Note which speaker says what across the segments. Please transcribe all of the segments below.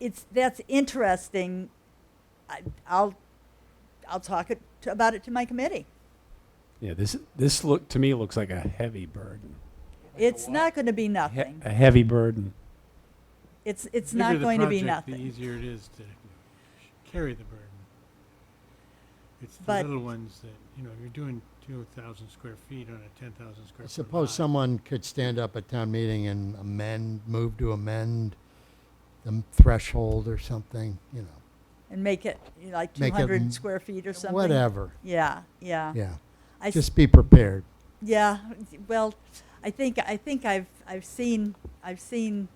Speaker 1: it's that's interesting. I, I'll I'll talk it to, about it to my committee.
Speaker 2: Yeah, this this look to me looks like a heavy burden.
Speaker 1: It's not going to be
Speaker 2: A he-
Speaker 1: nothing.
Speaker 2: a heavy burden.
Speaker 1: It's it's
Speaker 3: The
Speaker 1: not
Speaker 3: bigger the
Speaker 1: going to be
Speaker 3: project, The
Speaker 1: nothing.
Speaker 3: easier it is to carry the burden. It's the
Speaker 1: But-
Speaker 3: little ones that, you know, you're doing two thousand square feet on a ten thousand square foot
Speaker 4: Suppose
Speaker 3: lot.
Speaker 4: someone could stand up at town meeting and amend, move to amend the m- threshold or something, you know,
Speaker 1: And make it you know, like
Speaker 4: Make it
Speaker 1: 200
Speaker 4: m-
Speaker 1: square feet or something.
Speaker 4: whatever.
Speaker 1: Yeah, yeah.
Speaker 4: Yeah,
Speaker 1: I s-
Speaker 4: just be prepared.
Speaker 1: yeah. Well, I think I think I've I've seen I've seen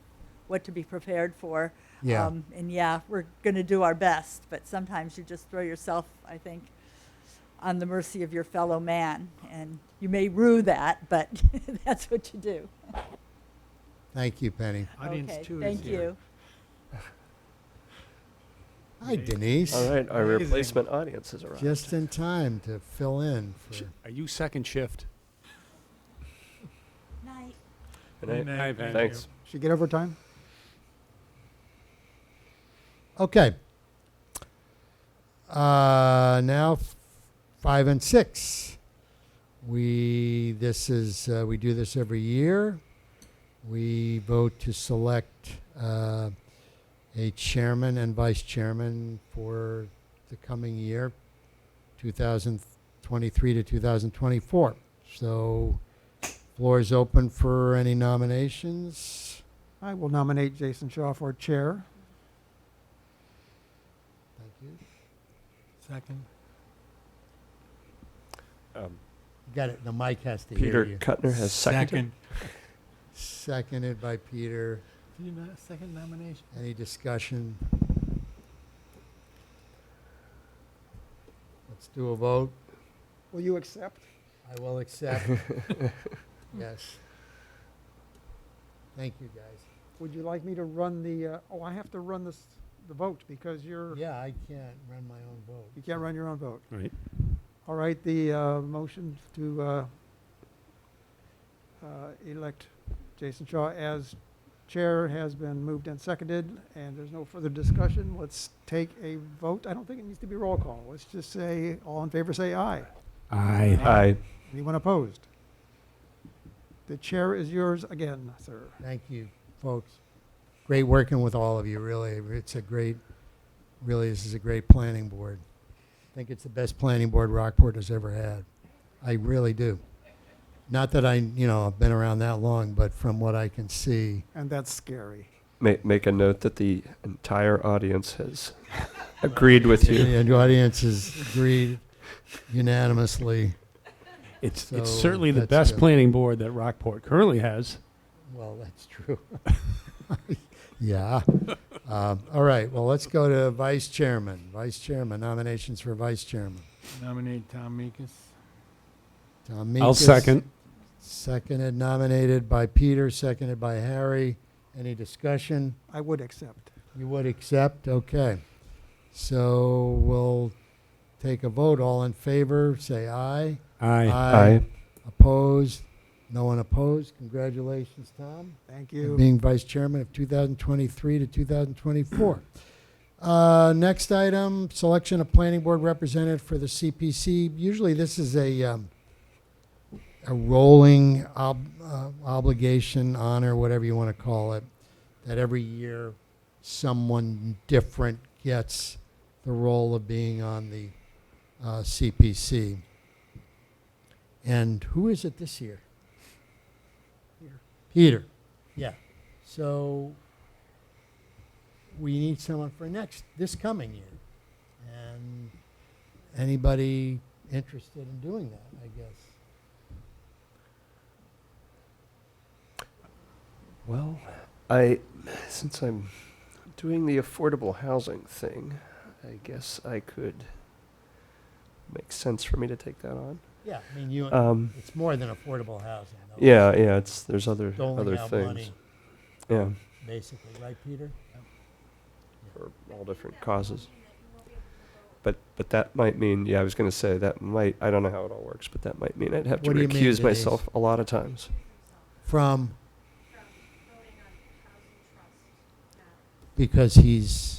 Speaker 1: what to be prepared for.
Speaker 4: Yeah.
Speaker 1: Um, and yeah, we're going to do our best, but sometimes you just throw yourself, I think, on the mercy of your fellow man, and you may rue that, but that's what you do.
Speaker 4: Thank you, Penny.
Speaker 3: Audience
Speaker 1: okay,
Speaker 3: two is
Speaker 1: thank
Speaker 3: here.
Speaker 1: you.
Speaker 4: Hi, Denise.
Speaker 5: All right, our
Speaker 3: Amazing.
Speaker 5: replacement audience has arrived.
Speaker 4: Just in time to fill in for,
Speaker 2: Are you second shift?
Speaker 1: Night.
Speaker 5: Good night.
Speaker 3: Good night,
Speaker 2: I've
Speaker 3: thank
Speaker 2: had-
Speaker 3: you.
Speaker 5: Thanks.
Speaker 6: Should get overtime?
Speaker 4: okay. Uh, now, f- five and six. We, this is, uh, we do this every year. We vote to select uh, a chairman and vice chairman for the coming year, 2023 to 2024. So, floor is open for any nominations.
Speaker 6: I will nominate Jason Shaw for chair.
Speaker 4: Thank you.
Speaker 3: Second.
Speaker 5: Um,
Speaker 4: Got it. The mic has to hear
Speaker 5: Peter
Speaker 4: you.
Speaker 5: Kuttner has seconded.
Speaker 4: Seconded by Peter.
Speaker 3: Did you not, second nomination?
Speaker 4: Any discussion? Let's do a vote.
Speaker 6: Will you accept?
Speaker 4: I will accept. Yes. Thank you, guys.
Speaker 6: Would you like me to run the, uh, oh, I have to run this, the vote because you're,
Speaker 4: Yeah, I can't run my own vote.
Speaker 6: you can't run your own vote.
Speaker 2: Right.
Speaker 6: All right, the uh, motion to uh, uh, elect Jason Shaw as chair has been moved and seconded, and there's no further discussion. Let's take a vote. I don't think it needs to be roll call. Let's just say, all in favor, say aye.
Speaker 2: I
Speaker 5: Aye.
Speaker 6: Anyone opposed? The chair is yours again, sir.
Speaker 4: Thank you, folks. Great working with all of you, really. It's a great, really, this is a great planning board. I think it's the best planning board Rockport has ever had. I really do. Not that I, you know, I've been around that long, but from what I can see,
Speaker 6: And that's scary.
Speaker 5: Make, make a note that the entire audience has agreed with you.
Speaker 4: and the audience has agreed unanimously.
Speaker 2: It's it's
Speaker 4: So
Speaker 2: certainly the
Speaker 4: that's
Speaker 2: best
Speaker 4: good.
Speaker 2: planning board that Rockport currently has.
Speaker 4: Well, that's true. yeah. Um, all right. Well, let's go to vice chairman. Vice chairman, nominations for vice chairman.
Speaker 3: Nominate Tom Meekis.
Speaker 4: Tom
Speaker 2: I'll
Speaker 4: Meekis.
Speaker 2: second.
Speaker 4: Seconded, nominated by Peter, seconded by Harry. Any discussion?
Speaker 6: I would accept.
Speaker 4: You would accept? Okay. So we'll take a vote. All in favor, say aye.
Speaker 2: I
Speaker 5: Aye.
Speaker 4: Opposed? No one opposed? Congratulations, Tom,
Speaker 6: Thank
Speaker 4: for
Speaker 6: you.
Speaker 4: being vice chairman of 2023 to 2024. Uh, next item, selection of planning board representative for the CPC. Usually this is a, um, a rolling ob- uh, obligation, honor, whatever you want to call it, that every year someone different gets the role of being on the uh, CPC. And who is it this year?
Speaker 6: Peter.
Speaker 4: Peter, yeah. So we need someone for next, this coming year. And anybody interested in doing that, I guess?
Speaker 5: Well, I, since I'm doing the affordable housing thing, I guess I could, makes sense for me to take that on.
Speaker 4: Yeah, I mean, you,
Speaker 5: Um,
Speaker 4: it's more than affordable housing. though.
Speaker 5: yeah, yeah, it's, there's other,
Speaker 4: Doling
Speaker 5: other
Speaker 4: out
Speaker 5: things.
Speaker 4: money,
Speaker 5: Yeah,
Speaker 4: basically, right, Peter?
Speaker 5: for all different causes. But, but that might mean, yeah, I was gonna say, that might, I don't know how it all works, but that might mean I'd have to
Speaker 4: What do you mean, Denise?
Speaker 5: recuse myself a lot of times.
Speaker 4: From, because he's